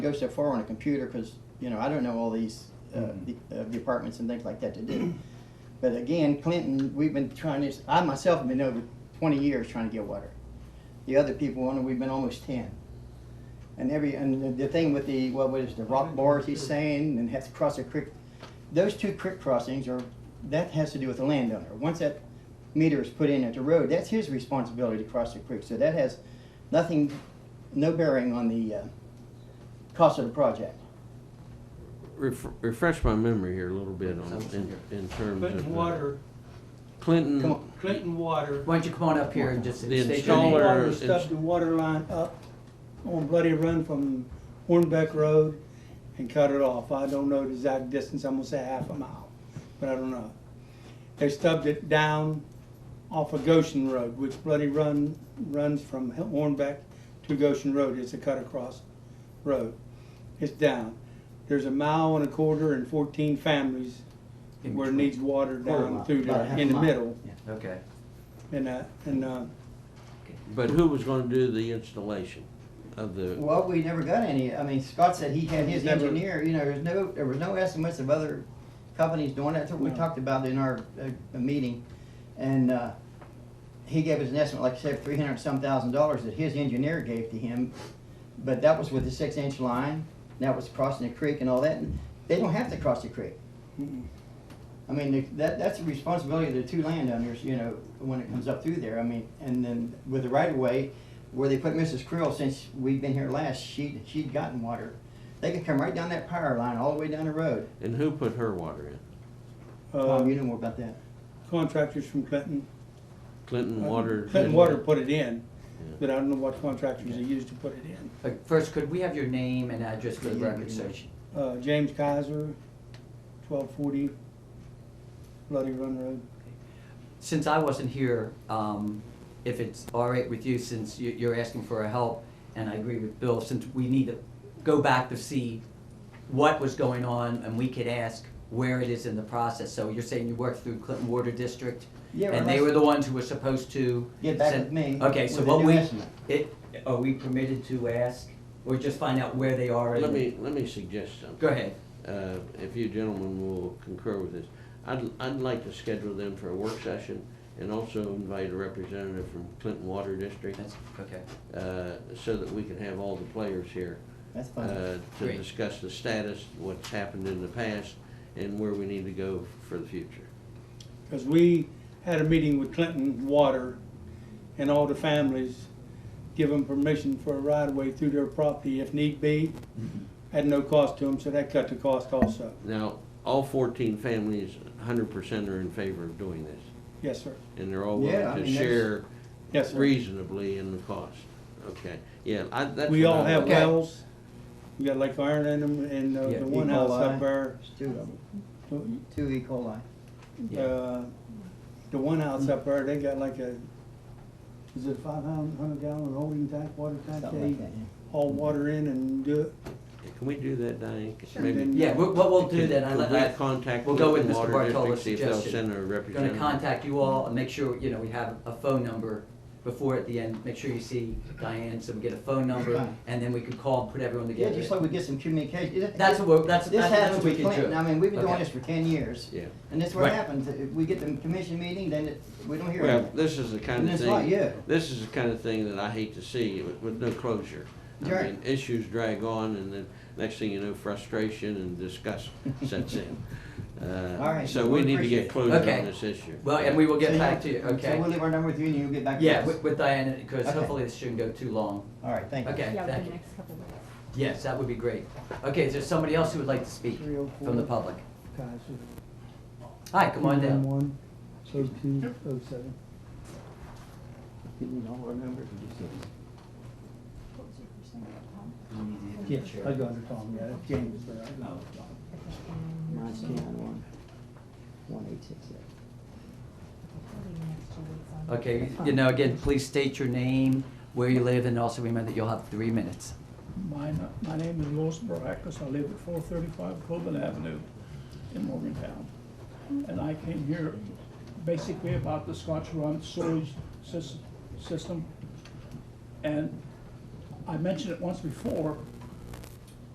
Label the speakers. Speaker 1: go so far on a computer because you know I don't know all these uh, the, uh, departments and things like that to do. But again, Clinton, we've been trying this. I myself have been over 20 years trying to get water. The other people on it, we've been almost 10. And every and the- the thing with the what was the rock bars he's saying and has to cross a creek, those two creek crossings are that has to do with the landowner. Once that meter is put in at the road, that's his responsibility to cross the creek. So that has nothing, no bearing on the uh, cost of the project.
Speaker 2: Ref- refresh my memory here a little bit on, in, in terms of.
Speaker 3: Clinton
Speaker 2: the-
Speaker 3: Water,
Speaker 1: Come
Speaker 2: Clinton,
Speaker 1: on.
Speaker 3: Clinton Water,
Speaker 4: Why don't you come on up here and just
Speaker 2: The
Speaker 4: state your
Speaker 2: installer-
Speaker 4: name?
Speaker 3: Water
Speaker 2: it's-
Speaker 3: stubbed the water line up on Bloody Run from Hornbeck Road and cut it off. I don't know the exact distance, I'm gonna say half a mile, but I don't know. They stubbed it down off of Goshen Road, which Bloody Run runs from Hornbeck to Goshen Road. It's a cut across road. It's down. There's a mile and a quarter and fourteen families
Speaker 4: In
Speaker 3: where it
Speaker 4: between.
Speaker 3: needs water
Speaker 1: Quarter
Speaker 3: down
Speaker 1: mile,
Speaker 3: through
Speaker 1: about a
Speaker 3: there,
Speaker 1: half
Speaker 3: in the
Speaker 1: mile.
Speaker 3: middle.
Speaker 4: Okay.
Speaker 3: And, uh, and, uh,
Speaker 2: but who was gonna do the installation of the,
Speaker 1: Well, we never got any, I mean, Scott said he had his
Speaker 3: Never.
Speaker 1: engineer, you know, there's no, there was no estimates of other companies doing that, that's what we
Speaker 3: No.
Speaker 1: talked about in our, uh, meeting. And, uh, he gave us an estimate, like I said, three hundred some thousand dollars that his engineer gave to him, but that was with the six inch line, that was crossing the creek and all that, and they don't have to cross the creek.
Speaker 3: Mm-mm.
Speaker 1: I mean, the- that, that's the responsibility of the two landowners, you know, when it comes up through there, I mean, and then with the right of way, where they put Mrs. Krill, since we've been here last, she, she'd gotten water. They could come right down that power line, all the way down the road.
Speaker 2: and who put her water in?
Speaker 1: Tom,
Speaker 3: uh,
Speaker 1: you know more about that.
Speaker 3: contractors from Clinton.
Speaker 2: Clinton Water?
Speaker 3: Uh, Clinton Water put it in,
Speaker 2: Yeah.
Speaker 3: but I don't know what contractors they used to put it in.
Speaker 4: Uh, First, could we have your name and address for the
Speaker 1: Yeah,
Speaker 4: record,
Speaker 1: yeah.
Speaker 4: sir?
Speaker 3: Uh, James Kaiser, twelve forty Bloody Run Road.
Speaker 4: Since I wasn't here, um, if it's all right with you, since you- you're asking for a help, and I agree with Bill, since we need to go back to see what was going on, and we could ask where it is in the process. So you're saying you worked through Clinton Water District?
Speaker 1: Yeah,
Speaker 4: And they
Speaker 1: unless-
Speaker 4: were the ones who were supposed to?
Speaker 1: Get back
Speaker 4: send-
Speaker 1: with me
Speaker 4: Okay, so
Speaker 1: with a
Speaker 4: what
Speaker 1: new
Speaker 4: we,
Speaker 1: estimate.
Speaker 4: it, are we permitted to ask, or just find out where they are?
Speaker 2: Let
Speaker 4: and-
Speaker 2: me, let me suggest something.
Speaker 4: Go ahead.
Speaker 2: uh, if you gentlemen will concur with this, I'd, I'd like to schedule them for a work session and also invite a representative from Clinton Water District,
Speaker 4: That's, okay.
Speaker 2: uh, so that we can have all the players here,
Speaker 1: That's fine.
Speaker 2: uh, to
Speaker 4: Great.
Speaker 2: discuss the status, what's happened in the past, and where we need to go for the future.
Speaker 3: Because we had a meeting with Clinton Water and all the families, give them permission for a right of way through their property if need be,
Speaker 2: Mm-hmm.
Speaker 3: at no cost to them, so that cut the cost also.
Speaker 2: Now, all fourteen families, hundred percent are in favor of doing this,
Speaker 3: Yes, sir.
Speaker 2: and they're all
Speaker 1: Yeah, I
Speaker 2: willing to
Speaker 1: mean, that's-
Speaker 2: share
Speaker 3: Yes, sir.
Speaker 2: reasonably in the cost. Okay, yeah, I, that's.
Speaker 3: We
Speaker 2: what
Speaker 3: all
Speaker 2: I
Speaker 3: have
Speaker 2: like.
Speaker 4: Okay.
Speaker 3: wells. We got Lake Iron in them and uh,
Speaker 4: Yeah,
Speaker 3: the one
Speaker 1: E.
Speaker 3: house
Speaker 1: coli.
Speaker 3: up there.
Speaker 1: There's two of them, two E. coli.
Speaker 4: Yeah.
Speaker 3: Uh, The one house up there, they got like a, is it five hun- hundred gallon holding tank, water tank?
Speaker 1: Something
Speaker 3: They
Speaker 1: like that, yeah.
Speaker 3: haul water in and do it.
Speaker 2: Can we do that, Diane?
Speaker 3: Sure.
Speaker 2: Maybe-
Speaker 3: Then-
Speaker 4: Yeah, what, what we'll do then, I
Speaker 2: Could
Speaker 4: let,
Speaker 2: we
Speaker 4: I,
Speaker 2: contact
Speaker 4: we'll go with
Speaker 2: Clinton
Speaker 4: Mr.
Speaker 2: Water District,
Speaker 4: Bartolo's
Speaker 2: see if they'll
Speaker 4: suggestion.
Speaker 2: send a
Speaker 4: gonna
Speaker 2: representative?
Speaker 4: contact you all and make sure, you know, we have a phone number before at the end, make sure you see Diane, so we get a phone number,
Speaker 1: Right.
Speaker 4: and then we can call and put everyone
Speaker 1: Yeah,
Speaker 4: together.
Speaker 1: just like we get some communication. It-
Speaker 4: That's
Speaker 1: it-
Speaker 4: what, we're- that's,
Speaker 1: This
Speaker 4: that's
Speaker 1: happened
Speaker 4: that's what we
Speaker 1: with
Speaker 4: can do.
Speaker 1: Clinton, I mean, we've been doing
Speaker 4: Okay.
Speaker 1: this for ten years.
Speaker 2: Yeah.
Speaker 1: And that's what
Speaker 4: Right.
Speaker 1: happens, If we get the commission meeting, then it, we don't hear
Speaker 2: Well,
Speaker 1: anything.
Speaker 2: this is the kind
Speaker 1: And
Speaker 2: of
Speaker 1: it's like, yeah.
Speaker 2: thing, this is the kind of thing that I hate to see with, with no closure. I
Speaker 1: Sure.
Speaker 2: mean, issues drag on and then next thing you know, frustration and disgust sets in. Uh,
Speaker 1: All right,
Speaker 2: So
Speaker 1: we
Speaker 2: we need to
Speaker 1: appreciate it.
Speaker 2: get closure on
Speaker 4: Okay.
Speaker 2: this issue.
Speaker 4: Well, and we will
Speaker 1: So
Speaker 4: get
Speaker 1: you-
Speaker 4: back to you,
Speaker 1: So
Speaker 4: okay?
Speaker 1: we'll leave our number with you and you'll get back to us.
Speaker 4: Yeah, with, with Diane, because
Speaker 1: Okay.
Speaker 4: hopefully this shouldn't go too long.
Speaker 1: All right, thank you.
Speaker 4: Okay,
Speaker 5: Yeah,
Speaker 4: thank
Speaker 5: within
Speaker 4: you.
Speaker 5: the next couple of weeks.
Speaker 4: Yes, that would be great. Okay, is there somebody else who would like to speak
Speaker 3: Three oh
Speaker 4: from the
Speaker 3: four.
Speaker 4: public?
Speaker 3: Guys,
Speaker 4: Hi, come on down.
Speaker 3: One, oh two, oh seven.
Speaker 1: You need all our numbers.
Speaker 5: What was your first name? Tom?
Speaker 3: Yeah, I go under Tom, yeah, that's James, but I
Speaker 4: Oh.
Speaker 1: Mine's ten one, one eight six seven.
Speaker 5: Within the next two weeks on-
Speaker 4: Okay, you know, again, please state your name, where you live, and also remember that you'll have three minutes.
Speaker 6: My, my name is Louis Baracus. I live at four thirty-five Coben Avenue in Morgantown. And I came here basically about the Scotch Run sewage sys- system. And I mentioned it once before,